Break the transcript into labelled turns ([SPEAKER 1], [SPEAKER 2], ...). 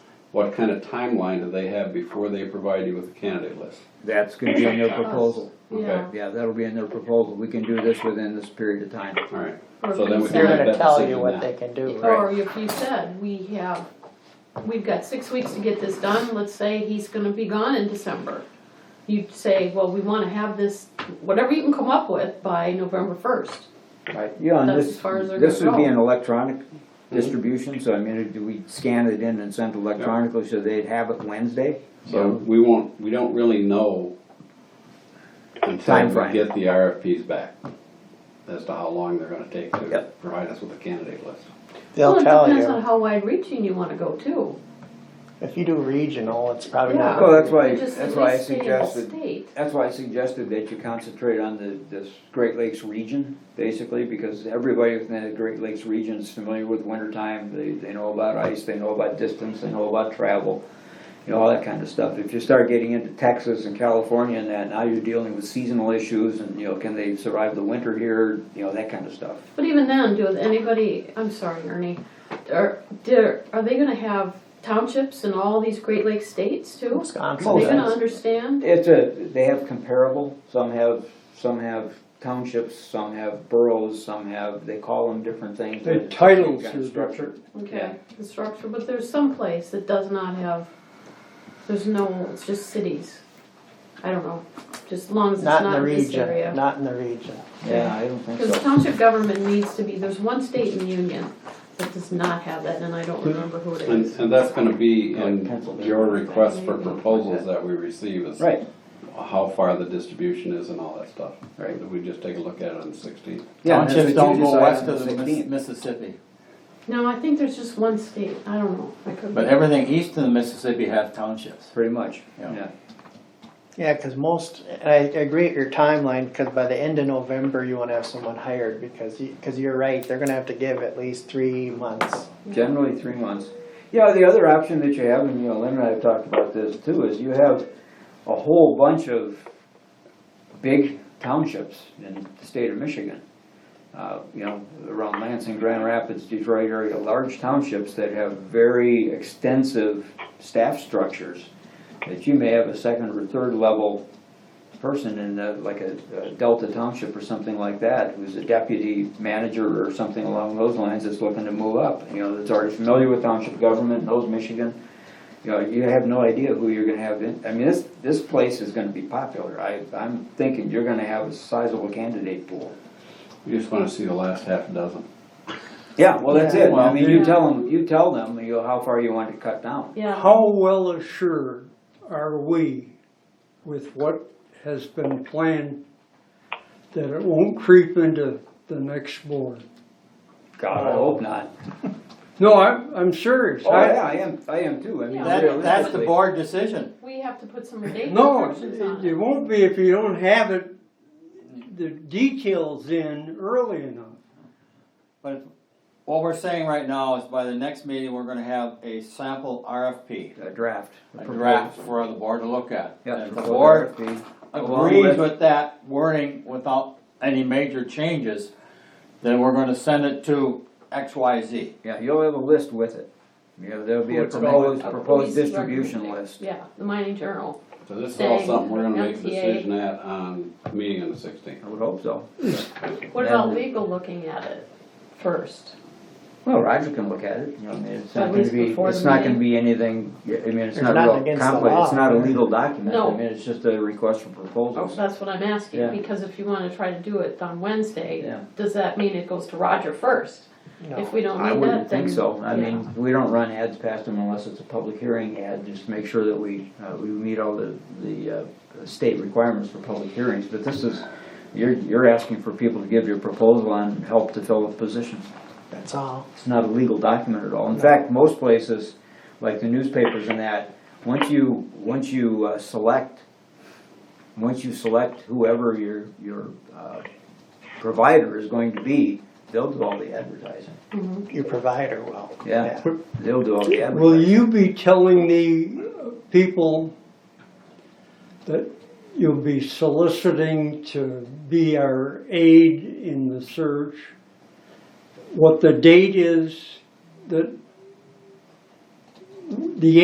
[SPEAKER 1] What kind of timeline do they have before they provide you with a candidate list?
[SPEAKER 2] That's gonna be in their proposal.
[SPEAKER 1] Okay.
[SPEAKER 2] Yeah, that'll be in their proposal. We can do this within this period of time.
[SPEAKER 1] All right.
[SPEAKER 3] Or
[SPEAKER 1] So
[SPEAKER 3] if
[SPEAKER 1] then
[SPEAKER 3] you
[SPEAKER 1] we can
[SPEAKER 4] They're
[SPEAKER 1] make
[SPEAKER 3] said-
[SPEAKER 4] gonna
[SPEAKER 1] that
[SPEAKER 4] tell you
[SPEAKER 1] decision
[SPEAKER 4] what
[SPEAKER 1] now.
[SPEAKER 4] they can do, right?
[SPEAKER 3] Or if you said, we have, we've got six weeks to get this done, let's say he's gonna be gone in December. You'd say, well, we wanna have this, whatever you can come up with by November first.
[SPEAKER 2] Yeah, and
[SPEAKER 3] That's
[SPEAKER 2] this,
[SPEAKER 3] as far as they're
[SPEAKER 2] this
[SPEAKER 3] gonna
[SPEAKER 2] would be
[SPEAKER 3] go.
[SPEAKER 2] an electronic Hmm. distribution, so I mean, it'd- we'd scan it in and send it electronically, so they'd have it Wednesday.
[SPEAKER 1] So we won't, we don't really know until we
[SPEAKER 2] Timeframe.
[SPEAKER 1] get the RFPs back as to how long they're gonna take to
[SPEAKER 2] Yep.
[SPEAKER 1] provide us with a candidate list.
[SPEAKER 4] They'll tell
[SPEAKER 3] Well, it depends on
[SPEAKER 4] you.
[SPEAKER 3] how wide reaching you wanna go too.
[SPEAKER 4] If you do regional, it's probably
[SPEAKER 3] Yeah.
[SPEAKER 4] not.
[SPEAKER 2] Well, that's why,
[SPEAKER 3] Just at
[SPEAKER 2] that's why I
[SPEAKER 3] least stay in the
[SPEAKER 2] suggested,
[SPEAKER 3] state.
[SPEAKER 2] that's why I suggested that you concentrate on the, this Great Lakes region, basically, because everybody within the Great Lakes region is familiar with wintertime. They, they know about ice, they know about distance, they know about travel, you know, all that kind of stuff. If you start getting into Texas and California and that, now you're dealing with seasonal issues and, you know, can they survive the winter here, you know, that kind of stuff.
[SPEAKER 3] But even then, do anybody, I'm sorry, Ernie, are, do- are they gonna have townships in all these Great Lakes states too? Are they
[SPEAKER 4] Wisconsin.
[SPEAKER 3] gonna
[SPEAKER 2] Most.
[SPEAKER 3] understand?
[SPEAKER 2] It's a, they have comparable, some have, some have townships, some have boroughs, some have, they call them different things.
[SPEAKER 5] The titles
[SPEAKER 2] Kind of
[SPEAKER 5] is
[SPEAKER 2] structure.
[SPEAKER 5] different.
[SPEAKER 3] Okay, the structure, but there's some place that does not have, there's no, it's just cities. I don't know, just as long as it's
[SPEAKER 4] Not in
[SPEAKER 3] not
[SPEAKER 4] the
[SPEAKER 3] in this
[SPEAKER 4] region,
[SPEAKER 3] area.
[SPEAKER 4] not in the region.
[SPEAKER 2] Yeah, I don't think
[SPEAKER 3] Because
[SPEAKER 2] so.
[SPEAKER 3] township government needs to be, there's one state in the Union that does not have that, and I
[SPEAKER 5] Hmm.
[SPEAKER 3] don't remember who it
[SPEAKER 1] And,
[SPEAKER 3] is.
[SPEAKER 1] and that's gonna be in
[SPEAKER 2] Pencil.
[SPEAKER 1] your request for proposals that we receive is
[SPEAKER 2] Right,
[SPEAKER 1] how far the distribution is and all that stuff.
[SPEAKER 2] Right.
[SPEAKER 1] We just take a look at it on the sixteenth.
[SPEAKER 2] yeah, and that's what
[SPEAKER 6] Townships
[SPEAKER 2] you
[SPEAKER 6] don't go
[SPEAKER 2] decide
[SPEAKER 6] west
[SPEAKER 2] on the
[SPEAKER 6] of the Miss-
[SPEAKER 2] 16th.
[SPEAKER 6] Mississippi,
[SPEAKER 3] No, I think there's just one state, I don't know, I could
[SPEAKER 6] but everything east of the Mississippi have townships.
[SPEAKER 2] pretty much,
[SPEAKER 6] Yeah.
[SPEAKER 2] yeah.
[SPEAKER 4] Yeah, because most, and I agree at your timeline, because by the end of November, you want to have someone hired, because you, because you're right, they're gonna have to give at least three months.
[SPEAKER 2] Generally three months. Yeah, the other option that you have, and you know, Lynn and I have talked about this too, is you have a whole bunch of big townships in the state of Michigan. Uh, you know, around Lansing, Grand Rapids, Detroit area, large townships that have very extensive staff structures. That you may have a second or third level person in the, like a a Delta Township or something like that, who's a deputy manager or something along those lines that's looking to move up, you know, that's already familiar with township government, knows Michigan. You know, you have no idea who you're gonna have in, I mean, this, this place is gonna be popular. I, I'm thinking you're gonna have a sizable candidate pool.
[SPEAKER 1] We just wanna see the last half dozen.
[SPEAKER 2] Yeah, well, that's it. I mean, you
[SPEAKER 3] Yeah.
[SPEAKER 2] tell them, you tell them, you know, how far you want to cut down.
[SPEAKER 3] Yeah,
[SPEAKER 5] How well assured are we with what has been planned that it won't creep into the next board?
[SPEAKER 2] God, I hope not.
[SPEAKER 5] No, I'm, I'm serious.
[SPEAKER 2] Oh,
[SPEAKER 5] I-
[SPEAKER 2] yeah, I am, I am too. I mean,
[SPEAKER 3] Yeah.
[SPEAKER 6] That, that's the
[SPEAKER 2] realistically.
[SPEAKER 6] board decision.
[SPEAKER 3] we have to put some date
[SPEAKER 5] No,
[SPEAKER 3] restrictions on
[SPEAKER 5] it
[SPEAKER 3] it.
[SPEAKER 5] won't be if you don't have it, the details in early enough.
[SPEAKER 6] But what we're saying right now is by the next meeting, we're gonna have a sample RFP,
[SPEAKER 2] A draft.
[SPEAKER 6] a draft for the board to look at.
[SPEAKER 2] Yeah.
[SPEAKER 6] And If the board
[SPEAKER 2] RFP. Along
[SPEAKER 6] agrees
[SPEAKER 2] with-
[SPEAKER 6] with that wording without any major changes, then we're gonna send it to X, Y, Z.
[SPEAKER 2] Yeah, you'll have a list with it. You know, there'll be a
[SPEAKER 5] What's it
[SPEAKER 2] proposed,
[SPEAKER 3] A
[SPEAKER 2] proposed
[SPEAKER 3] police
[SPEAKER 2] distribution
[SPEAKER 3] recommenda-
[SPEAKER 2] list.
[SPEAKER 3] Yeah, the mining journal.
[SPEAKER 1] So this is all
[SPEAKER 3] Same.
[SPEAKER 1] something we're gonna make a
[SPEAKER 3] MTA.
[SPEAKER 1] decision at on the meeting on the sixteenth.
[SPEAKER 2] I would hope so.
[SPEAKER 3] What
[SPEAKER 2] Then-
[SPEAKER 3] about legal looking at it first?
[SPEAKER 2] Well, Roger can look at it, you know, I mean, it's
[SPEAKER 3] At
[SPEAKER 2] not gonna
[SPEAKER 3] least
[SPEAKER 2] be,
[SPEAKER 3] before
[SPEAKER 2] it's
[SPEAKER 3] the
[SPEAKER 2] not gonna
[SPEAKER 3] meeting.
[SPEAKER 2] be anything, I mean, it's
[SPEAKER 4] There's
[SPEAKER 2] not
[SPEAKER 4] nothing
[SPEAKER 2] real
[SPEAKER 4] against the
[SPEAKER 2] complex, it's
[SPEAKER 4] law.
[SPEAKER 2] not a legal document.
[SPEAKER 3] No.
[SPEAKER 2] I mean, it's just a request for proposals.
[SPEAKER 3] Oh, That's what I'm
[SPEAKER 2] Yeah.
[SPEAKER 3] asking, because if you wanna try to do it on Wednesday,
[SPEAKER 2] Yeah.
[SPEAKER 3] does that mean it goes to Roger first? If we don't
[SPEAKER 2] I
[SPEAKER 3] need that,
[SPEAKER 2] wouldn't think
[SPEAKER 3] then.
[SPEAKER 2] so. I
[SPEAKER 3] yeah.
[SPEAKER 2] mean, we don't run ads past them unless it's a public hearing ad, just to make sure that we, uh, we meet all the, the, uh, state requirements for public hearings. But this is, you're, you're asking for people to give you a proposal on help to fill a position.
[SPEAKER 4] That's all.
[SPEAKER 2] It's not a legal document at all. In fact, most places, like the newspapers and that, once you, once you uh, select, once you select whoever your, your uh, provider is going to be, they'll do all the advertising.
[SPEAKER 4] Your provider will.
[SPEAKER 2] Yeah, they'll do all the
[SPEAKER 5] Will
[SPEAKER 2] advertising.
[SPEAKER 5] you be telling the people that you'll be soliciting to be our aid in the search? What the date is that the